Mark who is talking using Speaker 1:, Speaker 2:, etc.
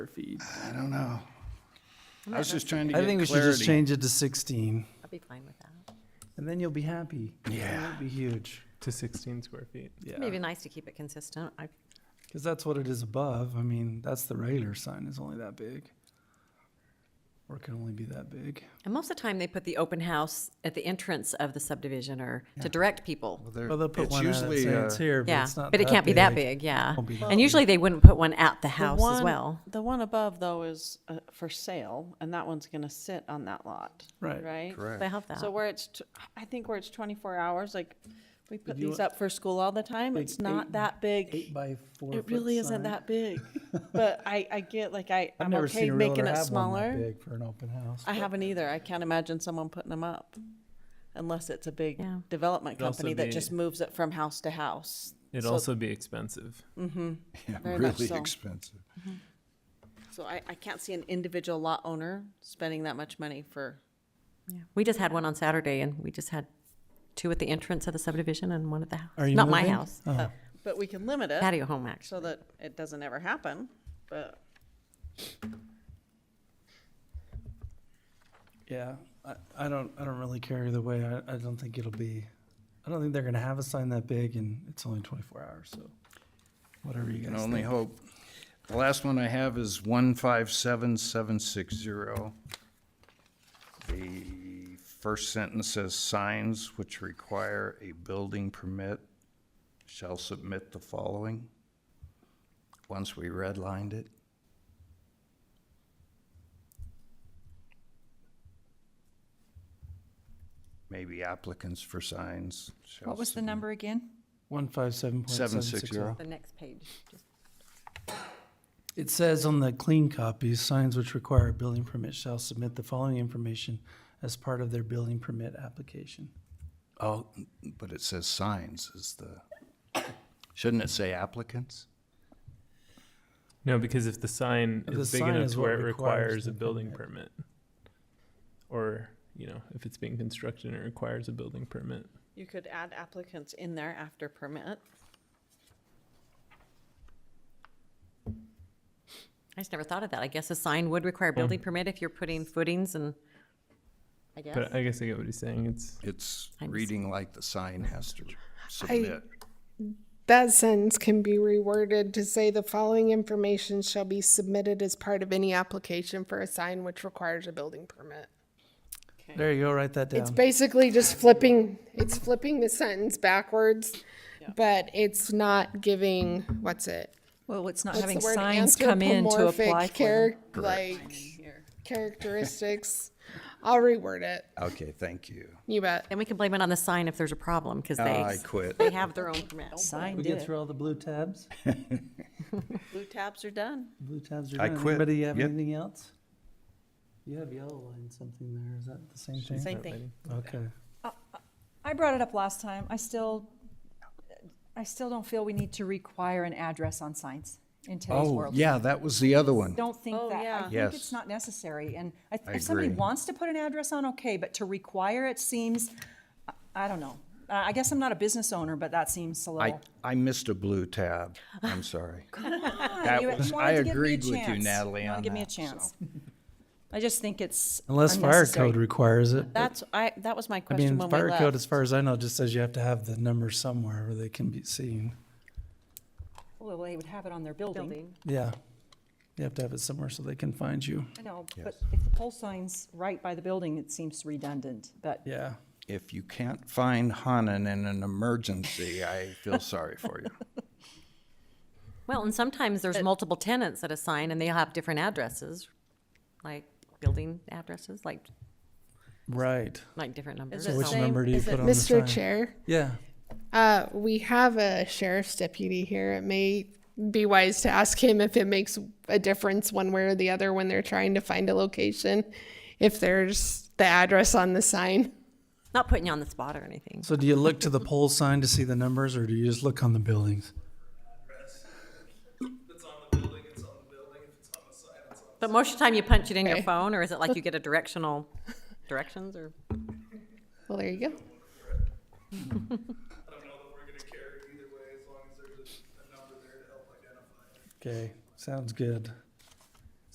Speaker 1: feed.
Speaker 2: I don't know. I was just trying to
Speaker 3: I think we
Speaker 2: get
Speaker 3: should just
Speaker 2: clarity.
Speaker 3: change it to 16,
Speaker 4: I'll be fine with that.
Speaker 3: and then you'll be happy.
Speaker 2: Yeah.
Speaker 3: It'll be huge,
Speaker 5: to 16 square feet.
Speaker 4: Maybe
Speaker 3: yeah.
Speaker 4: nice to keep it consistent. I,
Speaker 3: Because that's what it is above. I mean, that's the regular sign is only that big. Or it can only be that big.
Speaker 4: and most of the time, they put the open house at the entrance of the subdivision or to direct people.
Speaker 2: Well, there-
Speaker 3: Well, they'll put
Speaker 2: it's
Speaker 3: one out and
Speaker 2: usually,
Speaker 3: say
Speaker 2: uh,
Speaker 3: it's here, but
Speaker 4: Yeah,
Speaker 3: it's not
Speaker 4: but it can't be that big, yeah.
Speaker 3: Won't be that
Speaker 4: And
Speaker 3: big.
Speaker 4: usually, they wouldn't put one at the
Speaker 6: The
Speaker 4: house as
Speaker 6: one-
Speaker 4: well.
Speaker 6: The one above though is uh, for sale, and that one's gonna sit on that lot,
Speaker 3: Right.
Speaker 6: right?
Speaker 4: They have that.
Speaker 6: So where it's, t- I think where it's twenty-four hours, like, we put
Speaker 3: you
Speaker 6: these
Speaker 3: want-
Speaker 6: up for school all the time,
Speaker 3: Like
Speaker 6: it's
Speaker 3: eight-
Speaker 6: not that
Speaker 3: Eight
Speaker 6: big.
Speaker 3: by four.
Speaker 6: It really isn't that big, but I, I get, like, I,
Speaker 3: I've
Speaker 6: I'm
Speaker 3: never
Speaker 6: okay
Speaker 3: seen a realtor
Speaker 6: making it
Speaker 3: have one that
Speaker 6: smaller.
Speaker 3: big for an open house.
Speaker 6: I haven't either, I can't imagine someone putting them up, unless it's a big
Speaker 4: Yeah.
Speaker 6: development
Speaker 5: It'd also
Speaker 6: company that
Speaker 5: be-
Speaker 6: just moves it from house to house.
Speaker 5: It'd
Speaker 6: So-
Speaker 5: also be expensive.
Speaker 2: Yeah,
Speaker 6: very much
Speaker 2: really
Speaker 6: so.
Speaker 2: expensive.
Speaker 6: So I, I can't see an individual lot owner spending that much money for
Speaker 4: Yeah. We just had one on Saturday, and we just had two at the entrance of the subdivision and one at the house.
Speaker 3: Are you
Speaker 4: Not my
Speaker 3: moving?
Speaker 4: house,
Speaker 3: Oh.
Speaker 6: But we can limit it
Speaker 4: patio home actually.
Speaker 6: so that it doesn't ever happen, but.
Speaker 3: Yeah, I, I don't, I don't really care either way. I, I don't think it'll be, I don't think they're gonna have a sign that big and it's only twenty-four hours, so whatever you
Speaker 2: You can
Speaker 3: guys
Speaker 2: only
Speaker 3: think.
Speaker 2: hope. The last one I have is one five seven seven six zero. The first sentence says signs which require a building permit shall submit the following. Once we redlined it. Maybe applicants for signs shall.
Speaker 7: What was the
Speaker 2: submit-
Speaker 7: number again?
Speaker 3: One five seven point seven six zero.
Speaker 2: 760.
Speaker 4: The next page. Just-
Speaker 3: It says on the clean copy, signs which require a building permit shall submit the following information as part of their building permit application.
Speaker 2: Oh, but it says signs is the, shouldn't it say applicants?
Speaker 5: No, because if the sign
Speaker 3: If
Speaker 5: is
Speaker 3: the
Speaker 5: big
Speaker 3: sign
Speaker 5: enough
Speaker 3: is
Speaker 5: to where it
Speaker 3: what requires
Speaker 5: requires
Speaker 3: the
Speaker 5: a building
Speaker 3: permit.
Speaker 5: permit. or you know, if it's being constructed and it requires a building permit,
Speaker 6: You could add applicants in there after permit.
Speaker 4: I just never thought of that. I guess a sign would require a building permit if you're putting footings and, I guess.
Speaker 5: but I guess I get what he's saying. It's
Speaker 2: It's
Speaker 4: I'm just-
Speaker 2: reading like the sign has to submit.
Speaker 8: That sentence can be reworded to say the following information shall be submitted as part of any application for a sign which requires a building permit.
Speaker 3: There you go, write that
Speaker 8: It's
Speaker 3: down.
Speaker 8: basically just flipping, it's flipping the sentence backwards, but it's not giving, what's it?
Speaker 7: Well, it's not
Speaker 8: What's
Speaker 7: having
Speaker 8: the word?
Speaker 7: signs come in to
Speaker 8: Anthropomorphic
Speaker 7: apply for. them.
Speaker 8: charac- Like, characteristics. I'll reword it.
Speaker 2: Okay, thank you.
Speaker 8: You bet.
Speaker 4: then we can blame it on the sign if there's a problem,
Speaker 3: Oh,
Speaker 4: because
Speaker 2: I
Speaker 4: they,
Speaker 2: quit.
Speaker 4: they have their own permits.
Speaker 3: We
Speaker 6: Signed
Speaker 3: get through all the blue tabs?
Speaker 6: Blue tabs are done.
Speaker 3: Blue tabs are
Speaker 2: I
Speaker 3: done.
Speaker 2: quit.
Speaker 3: Anybody have
Speaker 2: Yep.
Speaker 3: anything else? You have yellow line something there. Is that the same thing?
Speaker 6: Same thing.
Speaker 3: Okay.
Speaker 7: I brought it up last time. I still, I still don't feel we need to require an address on signs in today's
Speaker 2: Oh,
Speaker 7: world.
Speaker 2: yeah, that was the other one.
Speaker 7: Don't think
Speaker 6: Oh,
Speaker 7: that. I
Speaker 6: yeah.
Speaker 7: think
Speaker 2: Yes.
Speaker 7: it's not necessary. And I th-
Speaker 2: I
Speaker 7: if somebody
Speaker 2: agree.
Speaker 7: wants to put an address on, okay, but to require it seems, I- I don't know. I I guess I'm not a business owner, but that seems a
Speaker 2: I,
Speaker 7: little.
Speaker 2: I missed a blue tab. I'm sorry. That
Speaker 7: You- you
Speaker 2: was,
Speaker 7: wanted
Speaker 2: I
Speaker 7: to give me a
Speaker 2: agreed with you,
Speaker 7: chance.
Speaker 2: Natalie,
Speaker 7: wanted
Speaker 2: on
Speaker 7: to give me a
Speaker 2: that.
Speaker 7: chance. I just think it's
Speaker 3: Unless fire code
Speaker 7: unnecessary.
Speaker 3: requires it. but-
Speaker 6: That's, I, that was my
Speaker 3: I mean,
Speaker 6: question when we
Speaker 3: fire code, as
Speaker 6: left.
Speaker 3: far as I know, just says you have to have the number somewhere where they can be seen.
Speaker 7: Well, they would have it on their building.
Speaker 3: Yeah. You have to have it somewhere so they can find you.
Speaker 7: I know, but if the pole sign's right by the building, it seems redundant, but
Speaker 3: Yeah.
Speaker 2: If you can't find Hanan in an emergency, I feel sorry for you.
Speaker 4: Well, and sometimes there's multiple tenants at a sign and they have different addresses, like building addresses, like,
Speaker 3: Right.
Speaker 4: like different numbers.
Speaker 6: it
Speaker 3: Which
Speaker 6: same-
Speaker 3: number do you
Speaker 6: is
Speaker 3: put
Speaker 6: it-
Speaker 3: on the sign?
Speaker 8: Mr. Chair,
Speaker 3: Yeah.
Speaker 8: uh, we have a sheriff's deputy here. It may be wise to ask him if it makes a difference one way or the other when they're trying to find a location, if there's the address on the sign.
Speaker 4: Not putting you on the spot or anything.
Speaker 3: So do you look to the pole sign to see the numbers or do you just look on the buildings?
Speaker 4: But most of the time you punch it in your
Speaker 8: Okay.
Speaker 4: phone, or is it like you get a directional, directions or?
Speaker 8: Well, there you go.
Speaker 9: I don't know that we're gonna care either way, as long as there's a, a number there to help identify it.
Speaker 3: Okay. Sounds good.